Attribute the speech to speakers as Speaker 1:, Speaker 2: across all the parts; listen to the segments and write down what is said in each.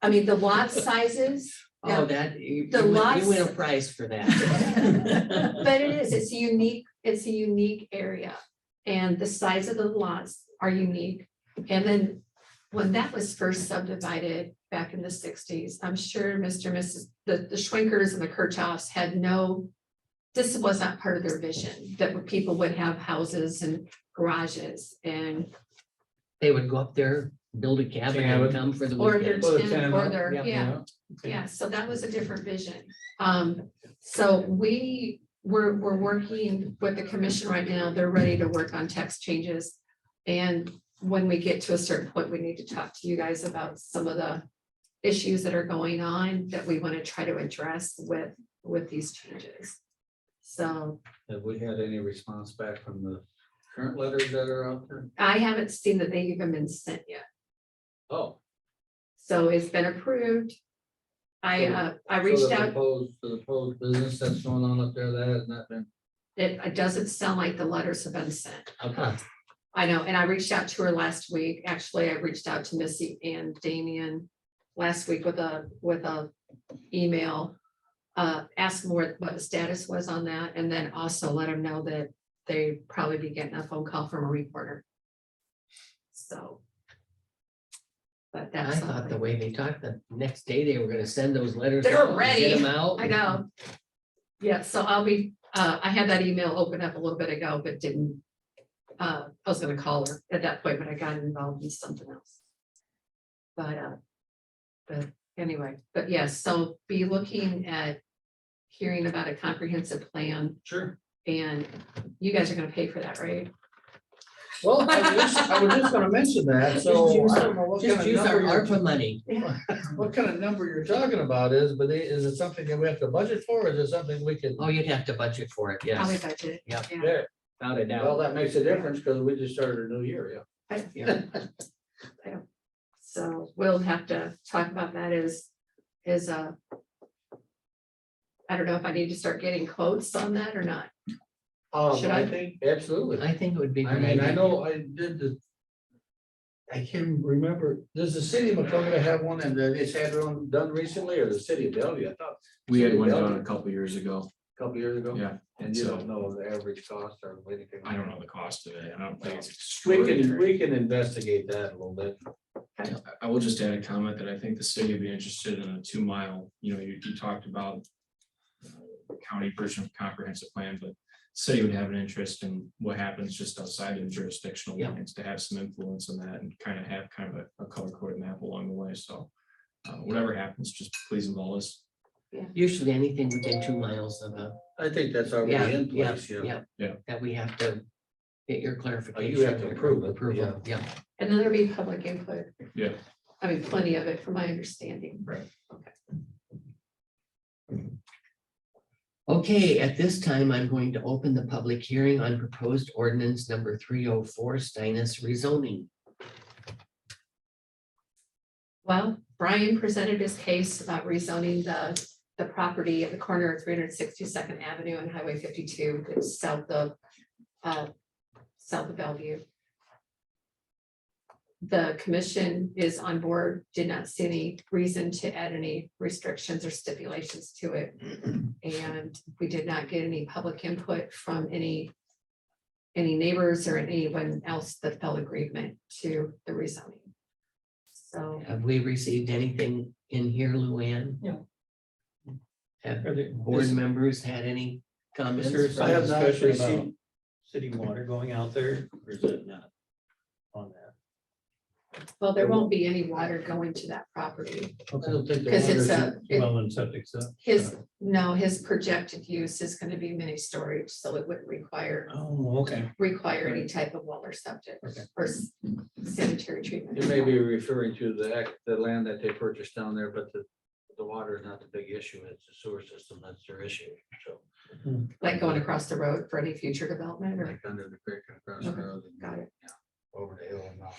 Speaker 1: I mean, the lot sizes,
Speaker 2: Oh, that, you, you
Speaker 1: The
Speaker 2: win-
Speaker 1: lots-
Speaker 2: you win a prize for that.
Speaker 1: but it is, it's a unique, it's a unique area. And the size of the lots are unique. And then when that was first subdivided back in the sixties, I'm sure Mr. and Mrs., the, the Schwenkers and the Kirchhoffs had no, this was not part of their vision, that people would have houses and garages and
Speaker 2: They would go up there, build a cabin and
Speaker 3: Cabin.
Speaker 2: come for the
Speaker 1: Or their
Speaker 2: weekend.
Speaker 3: Well, the
Speaker 1: ten, or
Speaker 3: tenement,
Speaker 1: their,
Speaker 2: yeah,
Speaker 1: yeah,
Speaker 3: yeah.
Speaker 1: yeah, so that was a different vision. Um, so we, we're, we're working with the commission right now, they're ready to work on text changes. And when we get to a certain point, we need to talk to you guys about some of the issues that are going on that we want to try to address with, with these changes. So
Speaker 3: Have we had any response back from the current letters that are out there?
Speaker 1: I haven't seen that they've even been sent yet.
Speaker 3: Oh.
Speaker 1: So it's been approved. I, uh, I
Speaker 3: so
Speaker 1: reached
Speaker 3: the
Speaker 1: out
Speaker 3: proposed- The proposed business that's going on up there, that has not been,
Speaker 1: It, it doesn't sound like the letters have been sent.
Speaker 2: Okay.
Speaker 1: I know, and I reached out to her last week. Actually, I reached out to Missy and Damian last week with a, with a email. Uh, asked more what the status was on that and then also let them know that they probably be getting a phone call from a reporter. So. But
Speaker 2: I
Speaker 1: that's.
Speaker 2: thought the
Speaker 1: something.
Speaker 2: way they talked, the next day they were gonna send those letters.
Speaker 1: They're
Speaker 2: out and
Speaker 1: ready.
Speaker 2: Get them out.
Speaker 1: I know. Yeah, so I'll be, uh, I had that email open up a little bit ago, but didn't. Uh, I was gonna call her at that point, but I got involved in something else. But, uh, but anyway, but yes, so be looking at hearing about a comprehensive plan
Speaker 3: sure.
Speaker 1: and you guys are gonna pay for that, right?
Speaker 3: Well, I was just, I was just gonna mention that,
Speaker 2: Just
Speaker 3: so
Speaker 2: use
Speaker 3: I don't know what kind
Speaker 2: Just
Speaker 3: of
Speaker 2: use our
Speaker 3: number you're,
Speaker 2: ARPA money.
Speaker 3: what kind of number you're talking about is, but i- is it something that we have to budget for, or is it something we can?
Speaker 2: Oh, you'd have to budget for it,
Speaker 1: Probably
Speaker 2: yes,
Speaker 1: budget.
Speaker 2: Yep.
Speaker 1: Yeah.
Speaker 3: There,
Speaker 2: without a
Speaker 3: well,
Speaker 2: doubt.
Speaker 3: that makes a difference, because we just started a new year, yeah.
Speaker 1: I- yeah. I- So we'll have to talk about that as, as a. I don't know if I need to start getting quotes on that or not.
Speaker 3: Um,
Speaker 1: Should I?
Speaker 3: I think, absolutely.
Speaker 2: I think it would be. a
Speaker 3: I
Speaker 2: good
Speaker 3: mean, I
Speaker 2: idea.
Speaker 3: know I did the. I can't remember, does the city of Macocota have one and then it's had one done recently or the city of Bellevue, I thought,
Speaker 4: We had one
Speaker 3: Really?
Speaker 4: done a couple years ago.
Speaker 3: a couple years ago?
Speaker 4: Yeah.
Speaker 3: And you
Speaker 4: so-
Speaker 3: don't know the average cost or anything.
Speaker 4: I don't know the cost of it. I don't think it's.
Speaker 3: We can,
Speaker 4: extraordinary.
Speaker 3: we can investigate that a little bit.
Speaker 4: I will just add a comment that I think the city would be interested in a two mile, you know, you, you talked about uh, county version of comprehensive plan, but city would have an interest in what happens just outside of jurisdictional
Speaker 2: Yeah.
Speaker 4: lines to have some influence on that and kind of have kind of a, a color coded map along the way. So uh, whatever happens, just please involve us.
Speaker 2: Usually anything within two miles of a,
Speaker 3: I think that's
Speaker 2: yeah,
Speaker 3: already in
Speaker 2: yeah,
Speaker 3: place, yeah. Oh,
Speaker 2: yeah.
Speaker 4: Yeah.
Speaker 2: That we have to get your clarification.
Speaker 3: to
Speaker 2: or
Speaker 3: approve it,
Speaker 2: Approval, yeah.
Speaker 1: And then there'll be public input.
Speaker 4: Yeah.
Speaker 1: I mean, plenty of it from my understanding.
Speaker 2: Okay, at this time, I'm going to open the public hearing on proposed ordinance number three oh four Steinis rezoning.
Speaker 1: Well, Brian presented his case about rezoning the, the property at the corner of three hundred sixty-second Avenue and Highway fifty-two, it's south of, uh, south of Bellevue. The commission is on board, did not see any reason to add any restrictions or stipulations to it. And we did not get any public input from any, any neighbors or anyone else that felt agreement to the rezoning. So.
Speaker 2: Have we received anything in here, Luann?
Speaker 5: No.
Speaker 2: Have
Speaker 5: Are there,
Speaker 2: board
Speaker 5: is-
Speaker 2: members had any
Speaker 5: is there
Speaker 2: comments?
Speaker 3: I
Speaker 5: some
Speaker 3: have not
Speaker 5: discussion
Speaker 3: heard about-
Speaker 5: about city water going out there, or is it not on that?
Speaker 1: Well, there won't be any water going to that property,
Speaker 3: I don't think. the
Speaker 1: because it's uh,
Speaker 3: water's-
Speaker 1: a, it-
Speaker 5: Well, and septic stuff.
Speaker 1: his, no, his projected use is gonna be mini storage, so it wouldn't require,
Speaker 5: Oh, okay.
Speaker 1: require any type of water subject
Speaker 5: Okay.
Speaker 1: or s- sanitary
Speaker 3: You may
Speaker 1: treatment.
Speaker 3: be referring to the, act- the land that they purchased down there, but the, the water is not the big issue, it's the sewer system, that's their issue, so.
Speaker 1: Like going across the road for any future development or,
Speaker 3: Like under the creek and across the
Speaker 1: Okay,
Speaker 3: road. and
Speaker 1: got it.
Speaker 3: Over the hill and down.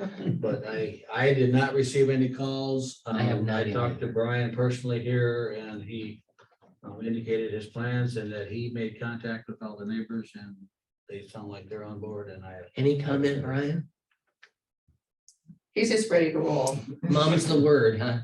Speaker 1: Okay.
Speaker 3: But I, I did not receive any calls.
Speaker 2: I have
Speaker 3: Um,
Speaker 2: not
Speaker 3: I talked to
Speaker 2: either.
Speaker 3: Brian personally here and he um, indicated his plans and that he made contact with all the neighbors and they sound like they're on board and I.
Speaker 2: Any comment, Brian?
Speaker 1: he's just ready to roll.
Speaker 2: Mom's the word, huh?